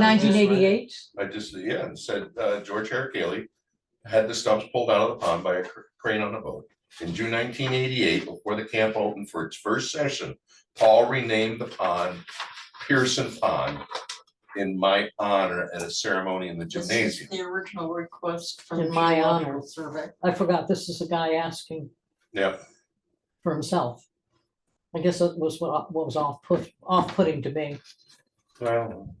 Nineteen eighty-eight? I just, yeah, and said, uh, George Eric Haley had the stumps pulled out of the pond by a cr- crane on a boat. In June nineteen eighty-eight, before the camp opened for its first session, Paul renamed the pond Pearson Pond in my honor at a ceremony in the This is gymnasium. The original request from. In the my Geological honor. Survey. I forgot, this is a guy asking Yeah, for himself. I guess that was what, what was off put, off-putting to me. well,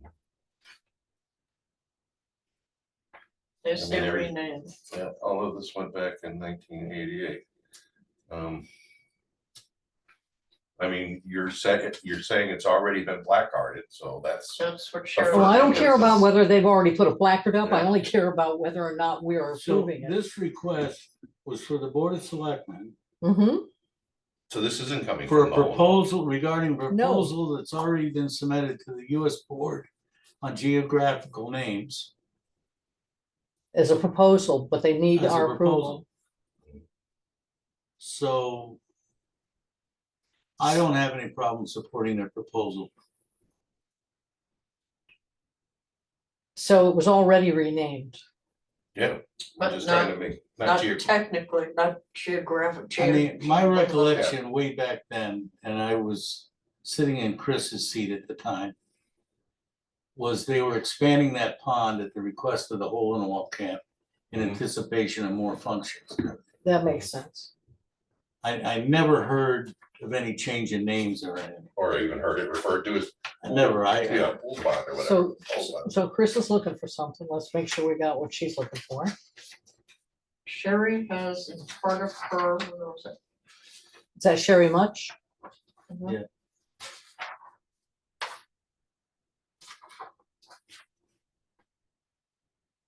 This I mean, every- every name. yeah, all of this went back in nineteen eighty-eight. Um. I mean, you're saying, you're saying it's already been blackguarded, so that's. That's what Well, I Cheryl, don't care about Yes. whether they've already put a placard up, I Yeah. only care about whether or not we are So approving it. this request was for the Board of Selectmen Mhm. So this isn't coming. for from a the home. proposal regarding proposal that's already been submitted to the US Board on geographical names. as a proposal, but they need as a our approval. proposal. So I don't have any problem supporting their proposal. So it was already renamed. Yeah. But I'm just trying not- to make, not not geo- technically, not geographic. I mean, my geo- recollection way back then, and I was sitting in Chris's seat at the time, was they were expanding that pond at the request of the hole in the wall camp in Mhm. anticipation of more functions. That makes sense. I, I never heard of any change in names or anything. or even heard it referred to as, I never, I, yeah, pool bond or whatever. So, Hold on. so Chris is looking for something. Let's make sure we got what she's looking for. Sherry has in part of her, what was it? Is that Sherry Much? Mhm. Yeah.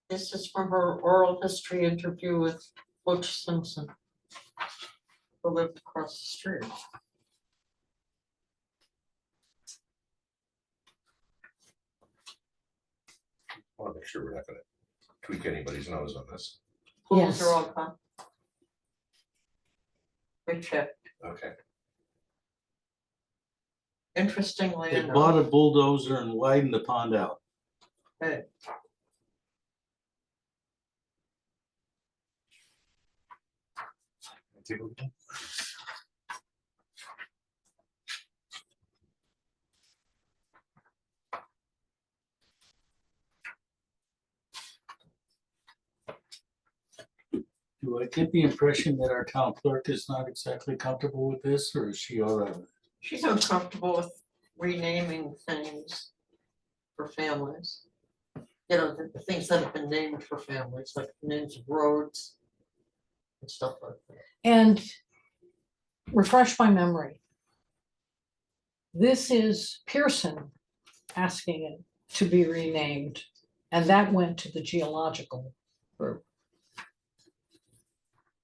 This is from her oral history interview with Butch Simpson. Who lived across the street. I want to make sure we're not gonna tweak anybody's nose on this. Pools Yes. are all gone. We checked. Okay. Interestingly they enough. bought a bulldozer and widened the pond out. Hey. Do I get the impression that our town clerk is not exactly comfortable with this, or is she all right? with it? She's uncomfortable with renaming things for families. You know, the- the things that have been named for families, like names of roads. And stuff like that. And refresh my memory. This is Pearson asking it to be renamed, and that went to the geological group.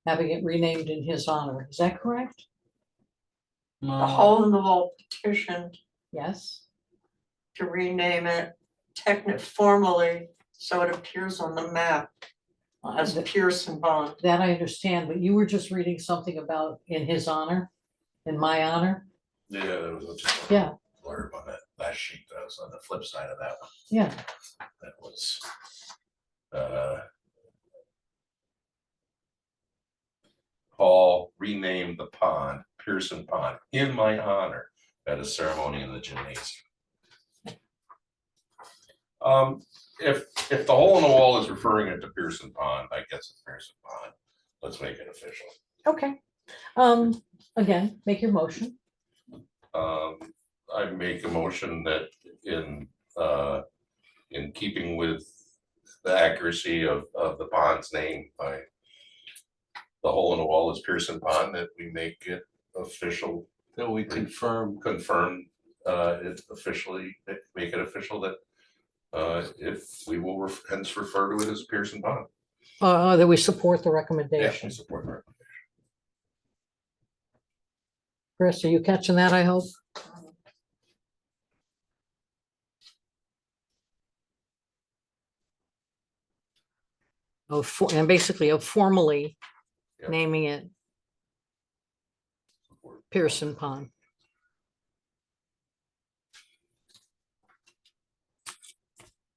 Having it renamed in his honor, is that correct? The No, hole in the wall petitioned Yes, to rename it techni- formally, so it appears on the map Uh, as th- Pearson Bond. that I understand, but you were just reading something about in his honor, in my honor, Yeah, there was just. a Yeah. Blurb on that last sheet, that was on the flip side of that one, yeah. that was. uh, Paul renamed the pond Pearson Pond in my honor at a ceremony in the gymnasium. Um, if, if the hole in the wall is referring it to Pearson Pond, I guess it's Pearson Pond, let's make it official. Okay, um, again, make your motion. Um, I make a motion that in, uh, in keeping with the accuracy of, of the pond's name by the hole in the wall is Pearson Pond, that we make it official, that we confirm, confirm, uh, it officially, make it official that uh, if we will ref- hence refer to it as Pearson Pond. Uh, that we support the Yeah, recommendation. we support her. Chris, are you catching that, I hope? Of, Oh, for- and basically of formally Yeah. naming it Pearson Pond.